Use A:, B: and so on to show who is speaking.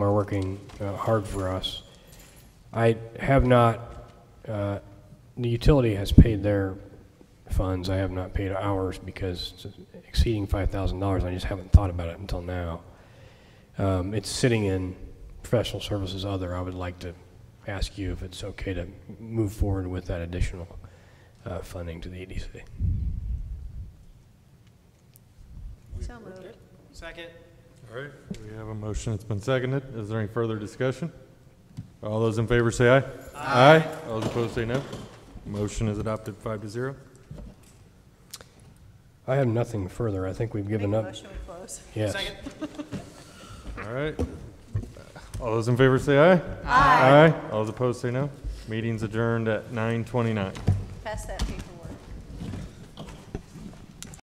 A: working uh, hard for us. I have not, uh, the utility has paid their funds. I have not paid ours because it's exceeding $5,000. I just haven't thought about it until now. Um, It's sitting in professional services other. I would like to ask you if it's okay to move forward with that additional uh, funding to the EDC.
B: So moved.
C: Second.
D: All right, we have a motion. It's been seconded. Is there any further discussion? All those in favor say aye. Aye. All those opposed say no. Motion is adopted five to zero.
A: I have nothing further. I think we've
B: Make a
A: given up.
B: motion, we close.
A: Yes.
C: Second.
D: All right. All those in favor say aye. Aye. Aye. All those opposed say no. Meeting's adjourned at nine twenty-nine.
B: Pass that, Pete.